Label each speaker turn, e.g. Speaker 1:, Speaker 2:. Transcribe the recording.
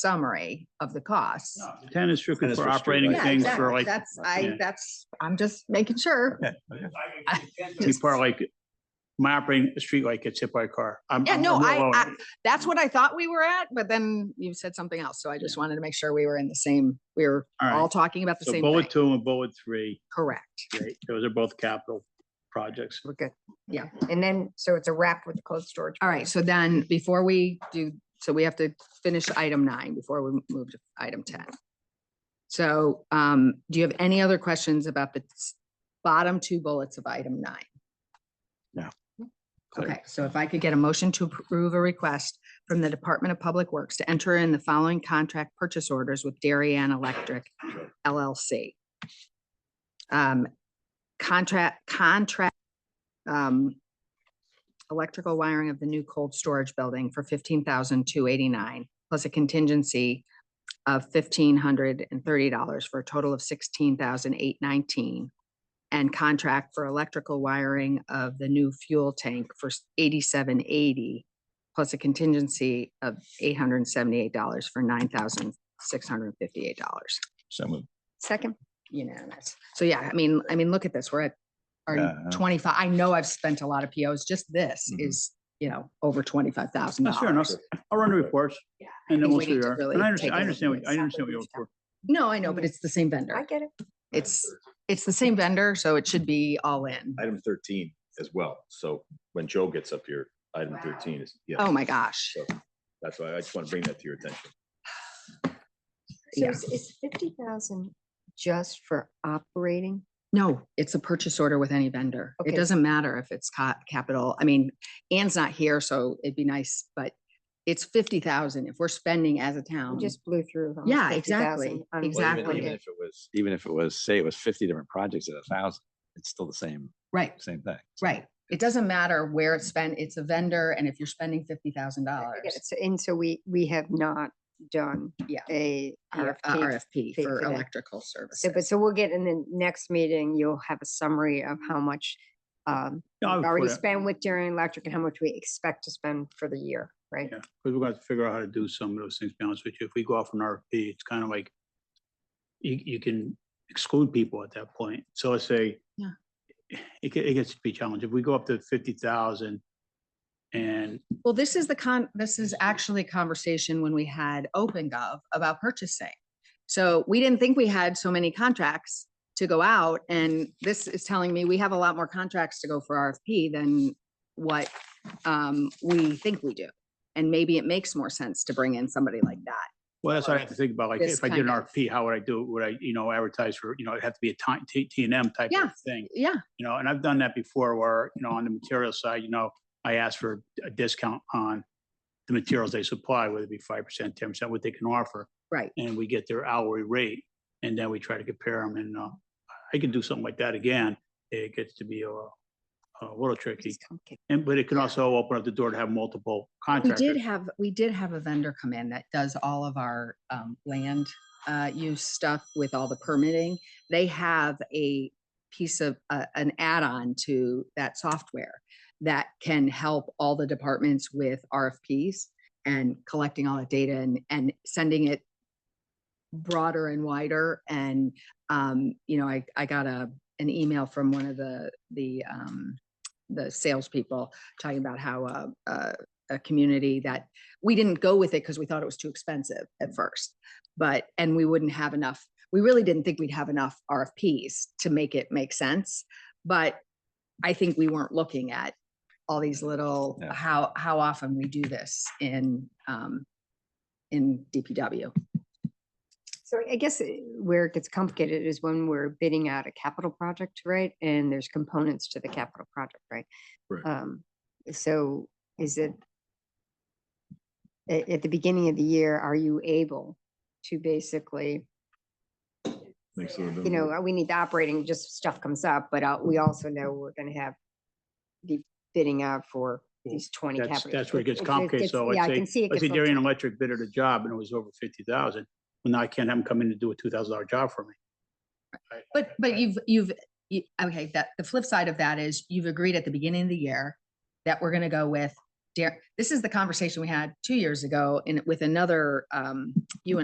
Speaker 1: summary of the costs.
Speaker 2: No, Ten is strictly
Speaker 3: Ten is
Speaker 2: for
Speaker 3: for
Speaker 2: operating
Speaker 3: streetlights.
Speaker 1: Yeah,
Speaker 2: things for
Speaker 1: exactly.
Speaker 2: like,
Speaker 1: That's, I,
Speaker 2: yeah.
Speaker 1: that's, I'm just making sure.
Speaker 3: Okay.
Speaker 2: be part of like, my operating, a streetlight gets hit by a car. I'm-
Speaker 1: Yeah,
Speaker 2: I'm-
Speaker 1: no,
Speaker 2: I'm
Speaker 1: I-
Speaker 2: all-
Speaker 1: I- That's what I thought we were at, but then you said something else. So I just wanted to make sure we were in the same, we were
Speaker 2: All right.
Speaker 1: all talking about the
Speaker 2: So
Speaker 1: same
Speaker 2: bullet
Speaker 1: thing.
Speaker 2: two and bullet three,
Speaker 1: Correct.
Speaker 2: right, those are both capital projects.
Speaker 1: We're good.
Speaker 4: Yeah, and then, so it's a wrap with the cold storage.
Speaker 1: All right. So then before we do, so we have to finish item nine before we move to item ten. So um, do you have any other questions about the s- bottom two bullets of item nine?
Speaker 2: Clear.
Speaker 1: Okay, so if I could get a motion to approve a request from the Department of Public Works to enter in the following contract purchase orders with Darien Electric LLC. Um, contract, contract, um, electrical wiring of the new cold storage building for fifteen thousand two eighty-nine, plus a contingency of fifteen hundred and thirty dollars for a total of sixteen thousand eight nineteen and contract for electrical wiring of the new fuel tank for eighty-seven eighty, plus a contingency of eight hundred and seventy-eight dollars for nine thousand six hundred and fifty-eight dollars.
Speaker 3: So moved.
Speaker 4: Second,
Speaker 1: Unanimous. So yeah, I mean, I mean, look at this, we're at
Speaker 3: Yeah,
Speaker 1: our
Speaker 3: yeah.
Speaker 1: twenty-five, I know I've spent a lot of POs, just this
Speaker 3: Mhm.
Speaker 1: is, you know, over twenty-five thousand
Speaker 2: Mm-hmm. That's fair enough.
Speaker 1: dollars.
Speaker 2: I'll run the reports.
Speaker 1: Yeah,
Speaker 2: And then
Speaker 1: think
Speaker 2: we'll
Speaker 1: we
Speaker 2: see
Speaker 1: need to
Speaker 2: where,
Speaker 1: really
Speaker 2: and I
Speaker 1: take
Speaker 2: understand,
Speaker 1: a
Speaker 2: I
Speaker 1: look at
Speaker 2: understand, what- I understand what you're
Speaker 1: exactly
Speaker 2: looking for.
Speaker 1: No, I know, but it's the same
Speaker 4: I
Speaker 1: vendor.
Speaker 4: get it.
Speaker 1: It's, it's the same vendor, so it should be all in.
Speaker 3: Item thirteen as well. So when Joe gets up here, item
Speaker 4: Wow.
Speaker 3: thirteen is, yeah,
Speaker 1: Oh, my gosh.
Speaker 3: that's why I just want to bring that to your attention.
Speaker 4: So
Speaker 1: Yeah.
Speaker 4: is, is fifty thousand just for operating?
Speaker 1: No, it's a purchase order with any vendor. It
Speaker 4: Okay.
Speaker 1: doesn't matter if it's ca- capital. I mean, Ann's not here, so it'd be nice, but it's fifty thousand if we're spending as a
Speaker 4: We
Speaker 1: town.
Speaker 4: just blew through. almost
Speaker 1: Um, Yeah,
Speaker 4: 50,000
Speaker 1: exactly,
Speaker 4: on one
Speaker 3: Well, even-
Speaker 1: Exactly.
Speaker 3: Even
Speaker 4: day.
Speaker 3: if it was,
Speaker 5: even if it was, say it was fifty different projects at a thousand, it's still the same,
Speaker 1: Right,
Speaker 5: same thing. So
Speaker 1: right. It doesn't matter where it's spent. It's a vendor and if you're spending fifty thousand
Speaker 4: I
Speaker 1: dollars.
Speaker 4: get it. So- And so we, we have not done
Speaker 1: Yeah.
Speaker 4: a
Speaker 1: uh,
Speaker 4: RFP.
Speaker 1: RFP
Speaker 4: fee
Speaker 1: for
Speaker 4: for that.
Speaker 1: electrical
Speaker 4: So, but
Speaker 1: services.
Speaker 4: so we'll get in the next meeting, you'll have a summary of how much um,
Speaker 2: Yeah, I'll
Speaker 3: Oh,
Speaker 4: we've
Speaker 2: put
Speaker 4: already
Speaker 2: it-
Speaker 4: spent with Darien Electric and how much we expect to spend for the year, right?
Speaker 2: Yeah, because we're gonna have to figure out how to do some of those things, to be honest with you. If we go off an RFP, it's kind of like you, you can exclude people at that point. So let's say
Speaker 1: Yeah.
Speaker 2: it, ge- it gets to be challenging. If we go up to fifty thousand and
Speaker 1: Well, this is the con, this is actually a conversation when we had OpenGov about purchasing. So we didn't think we had so many contracts to go out and this is telling me we have a lot more contracts to go for RFP than what um we think we do. And maybe it makes more sense to bring in somebody like that.
Speaker 2: Well, that's what I
Speaker 1: Or
Speaker 2: have to think about, like,
Speaker 1: this
Speaker 2: if I did
Speaker 1: kind
Speaker 2: an
Speaker 1: of-
Speaker 2: RFP, how would I do it? Would I, you know, advertise for, you know, it'd have to be a ti- T, T and M type
Speaker 1: Yeah.
Speaker 2: of thing,
Speaker 1: Yeah,
Speaker 2: you know, and I've done that before where, you know, on the material side, you know, I asked for a discount on the materials they supply, whether it be five percent, ten percent, what they can offer,
Speaker 1: right.
Speaker 2: and we get their hourly rate, and then we try to compare them, and, uh, I could do something like that again. It gets to be a, a little tricky,
Speaker 4: It's complicated.
Speaker 2: and, but it can also open up the door to have multiple
Speaker 1: We
Speaker 2: contractors.
Speaker 1: did have, we did have a vendor come in that does all of our um land uh use stuff with all the permitting. They have a piece of uh, an add-on to that software that can help all the departments with RFPs and collecting all that data and and sending it broader and wider and um you know I I got a an email from one of the the um the salespeople talking about how uh, uh a community that we didn't go with it because we thought it was too expensive at first. But, and we wouldn't have enough, we really didn't think we'd have enough RFPs to make it make sense. But I think we weren't looking at all these little,
Speaker 5: Yeah.
Speaker 1: how, how often we do this in, um, in DPW.
Speaker 4: So I guess uh, where it gets complicated is when we're bidding out a capital project, right? And there's components to the capital project, right?
Speaker 3: Right.
Speaker 4: Um, so is it at, at the beginning of the year, are you able to basically,
Speaker 3: Makes it a
Speaker 4: you
Speaker 3: little
Speaker 4: know,
Speaker 3: bit-
Speaker 2: Mm-hmm.
Speaker 4: uh, we need the operating, just stuff comes up, but uh, we also know we're gonna have the bidding out for
Speaker 2: Well,
Speaker 4: these twenty
Speaker 2: That's,
Speaker 4: capital.
Speaker 2: that's where it gets complicated.
Speaker 4: complicated.
Speaker 2: So
Speaker 4: Yeah,
Speaker 2: let's
Speaker 4: I can see
Speaker 2: say,
Speaker 4: it
Speaker 2: let's
Speaker 4: gets
Speaker 2: say
Speaker 4: a little
Speaker 2: Darian
Speaker 4: tricky.
Speaker 2: Electric bid at a job and it was over fifty thousand. Well, now I can't have them come in and do a two thousand dollar job for me. I-
Speaker 1: But,
Speaker 2: I-
Speaker 1: but you've, you've, you- okay, that, the flip side of that is you've agreed at the beginning of the year that we're going to go with Dar- this is the conversation we had two years ago in, with another, um, you and